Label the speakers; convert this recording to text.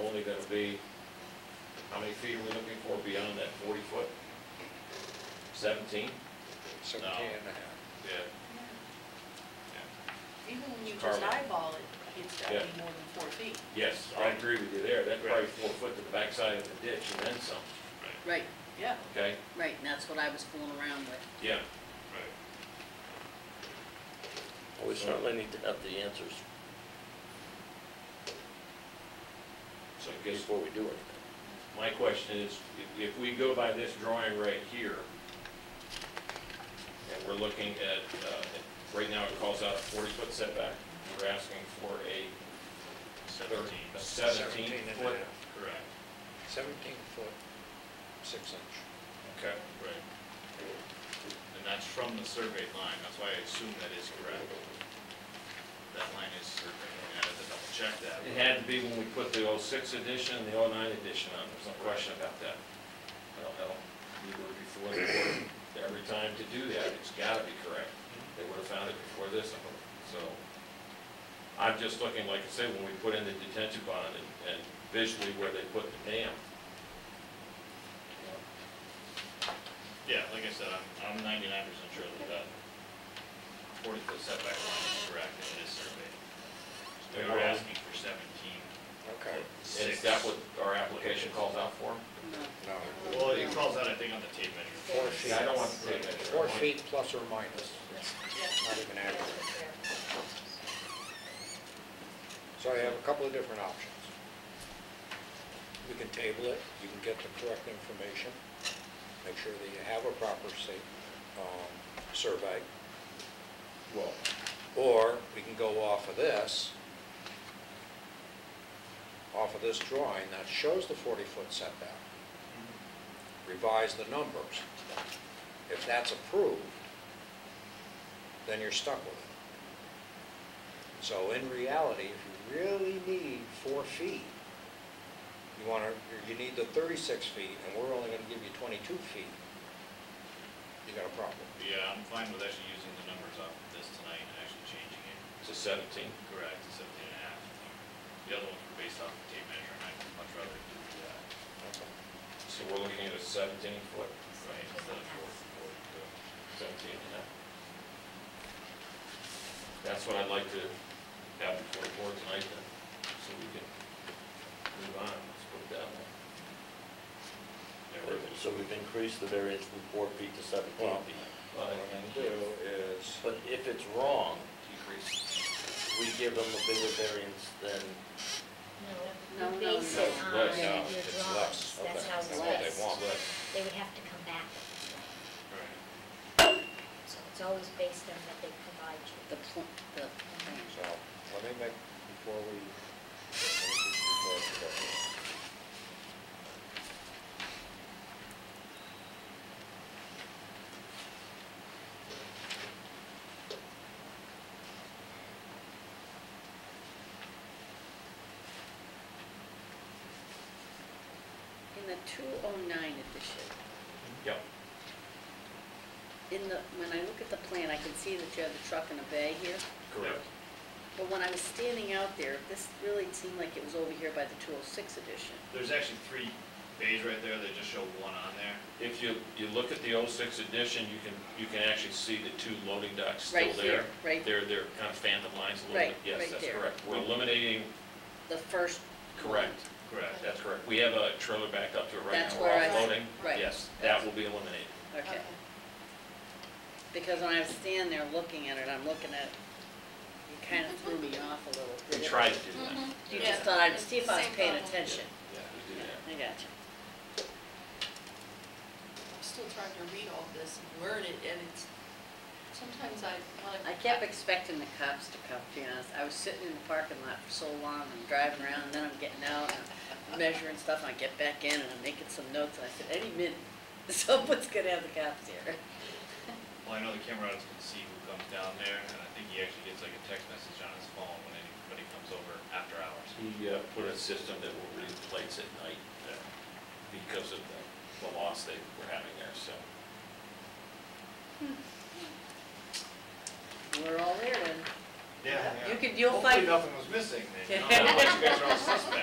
Speaker 1: only gonna be, how many feet are we looking for beyond that forty foot? Seventeen?
Speaker 2: seventeen and a half.
Speaker 1: Yeah.
Speaker 3: Even when you
Speaker 1: It's
Speaker 3: just
Speaker 1: carbon.
Speaker 3: eyeball it, it's got to be
Speaker 1: Yeah.
Speaker 3: more than four feet.
Speaker 1: Yes, I agree with you there, that's probably four foot to the backside of the ditch and then some,
Speaker 4: Right,
Speaker 3: Yeah.
Speaker 1: okay?
Speaker 4: right, and that's what I was fooling around with.
Speaker 1: Yeah,
Speaker 5: We certainly need to have the answers
Speaker 1: so I guess
Speaker 5: before we do anything.
Speaker 1: my question is, if- if we go by this drawing right here, and we're looking at, uh, it- right now it calls out a forty-foot setback, we're asking for a
Speaker 6: Seventeen.
Speaker 1: a
Speaker 2: Seventeen
Speaker 1: seventeen
Speaker 2: and a
Speaker 1: foot.
Speaker 2: half.
Speaker 6: Correct.
Speaker 2: Seventeen foot, six inch.
Speaker 1: Okay,
Speaker 6: Right. And that's from the surveyed line, that's why I assume that is correct. That line is surveyed, I had to double check that.
Speaker 1: It had to be when we put the '06 edition and the '09 edition on, there's no question about that. I don't know, we were before the board, every time to do that, it's gotta be correct. They would have found it before this, so. I'm just looking, like I said, when we put in the detention bond and- and visually where they put the dam.
Speaker 6: Yeah, like I said, I'm, I'm ninety-nine percent sure that that forty-foot setback line is correct and it is surveyed. So we were asking for seventeen,
Speaker 2: Okay,
Speaker 1: And
Speaker 6: six.
Speaker 1: is that what our application calls out for?
Speaker 4: No.
Speaker 2: no,
Speaker 6: Well, it calls out, I think, on the tape measure.
Speaker 2: four
Speaker 1: Yeah, I
Speaker 2: feet,
Speaker 1: don't want to take that.
Speaker 2: four feet plus or minus, not even accurate. So I have a couple of different options. You can table it, you can get the correct information, make sure that you have a proper state, um, survey.
Speaker 1: Well,
Speaker 2: Or we can go off of this, off of this drawing that shows the 40-foot setback, revise the numbers. If that's approved, then you're stuck with it. So in reality, if you really need four feet, you want to, you need the 36 feet, and we're only going to give you 22 feet, you got a problem.
Speaker 6: Yeah, I'm fine with actually using the numbers off of this tonight and actually changing it.
Speaker 1: it's a 17.
Speaker 6: Correct, it's seventeen and a half. The other ones were based off the tape measure, and I'd much rather do that,
Speaker 2: That's all.
Speaker 1: So we're looking at a 17 foot,
Speaker 6: right, instead of four, four, two.
Speaker 1: 17 and a half. That's what I'd like to have before the board tonight then, so we can move on, let's put it that way.
Speaker 6: There was-
Speaker 5: So we've increased the variance from four feet to seventeen
Speaker 2: Well-
Speaker 5: feet.
Speaker 1: But
Speaker 2: What I'm going to do is,
Speaker 5: But if it's wrong,
Speaker 1: decrease,
Speaker 5: we give them a bigger variance than,
Speaker 4: No, no,
Speaker 7: No,
Speaker 4: no.
Speaker 7: base it on your
Speaker 1: Less,
Speaker 2: yeah,
Speaker 7: drawings,
Speaker 2: it's less,
Speaker 7: that's
Speaker 2: okay,
Speaker 7: how it's
Speaker 2: that's what they
Speaker 7: less.
Speaker 2: want.
Speaker 1: but
Speaker 7: They would have to come back,
Speaker 6: Right.
Speaker 7: so it's always based on what they provide
Speaker 4: The
Speaker 7: you.
Speaker 4: pl- the plan.
Speaker 2: so, let me make, before we, before we go here.
Speaker 4: In the 209 edition,
Speaker 1: Yep,
Speaker 4: in the, when I look at the plan, I can see that you have the truck and a bay here.
Speaker 1: correct.
Speaker 4: But when I was standing out there, this really seemed like it was over here by the 206 edition.
Speaker 6: There's actually three bays right there, they just show one on there.
Speaker 1: If you, you look at the 06 edition, you can, you can actually see the two loading docks still
Speaker 4: Right
Speaker 1: there.
Speaker 4: here, right,
Speaker 1: They're, they're kind of phantom lines a little bit,
Speaker 4: Right,
Speaker 1: yes,
Speaker 4: right
Speaker 1: that's
Speaker 4: there.
Speaker 1: correct. We're eliminating,
Speaker 4: the first,
Speaker 1: correct,
Speaker 6: Correct.
Speaker 1: that's correct. We have a trailer backed up to it right now.
Speaker 4: That's
Speaker 1: We're
Speaker 4: where I-
Speaker 1: offloading.
Speaker 4: right.
Speaker 1: Yes, that will be eliminated.
Speaker 4: okay. Because when I was standing there looking at it, I'm looking at, you kind of threw me off a little.
Speaker 1: We
Speaker 4: didn't
Speaker 1: try
Speaker 4: you?
Speaker 1: to do that.
Speaker 3: Mhm.
Speaker 4: You
Speaker 3: Yeah.
Speaker 4: just thought I'd see if I was
Speaker 3: Same
Speaker 4: paying
Speaker 3: problem.
Speaker 4: attention.
Speaker 1: Yeah, we do that.
Speaker 4: I got you.
Speaker 3: I'm still trying to read all this and word it, and it's, sometimes I want to.
Speaker 4: I kept expecting the cops to come, to be honest. I was sitting in the parking lot for so long, I'm driving around, and then I'm getting out, and I'm measuring stuff, and I get back in, and I'm making some notes, and I said, any minute, someone's gonna have the cops here.
Speaker 6: Well, I know the cameraman can see who comes down there, and I think he actually gets like a text message on his phone when anybody comes over after hours.
Speaker 1: He uh, put a system that will read plates at night uh, because of the, the loss they were having there, so.
Speaker 4: We're all there, then.
Speaker 6: Yeah,
Speaker 4: You could, you'll fight
Speaker 6: nothing was missing
Speaker 4: then.
Speaker 6: Otherwise you guys are all suspect.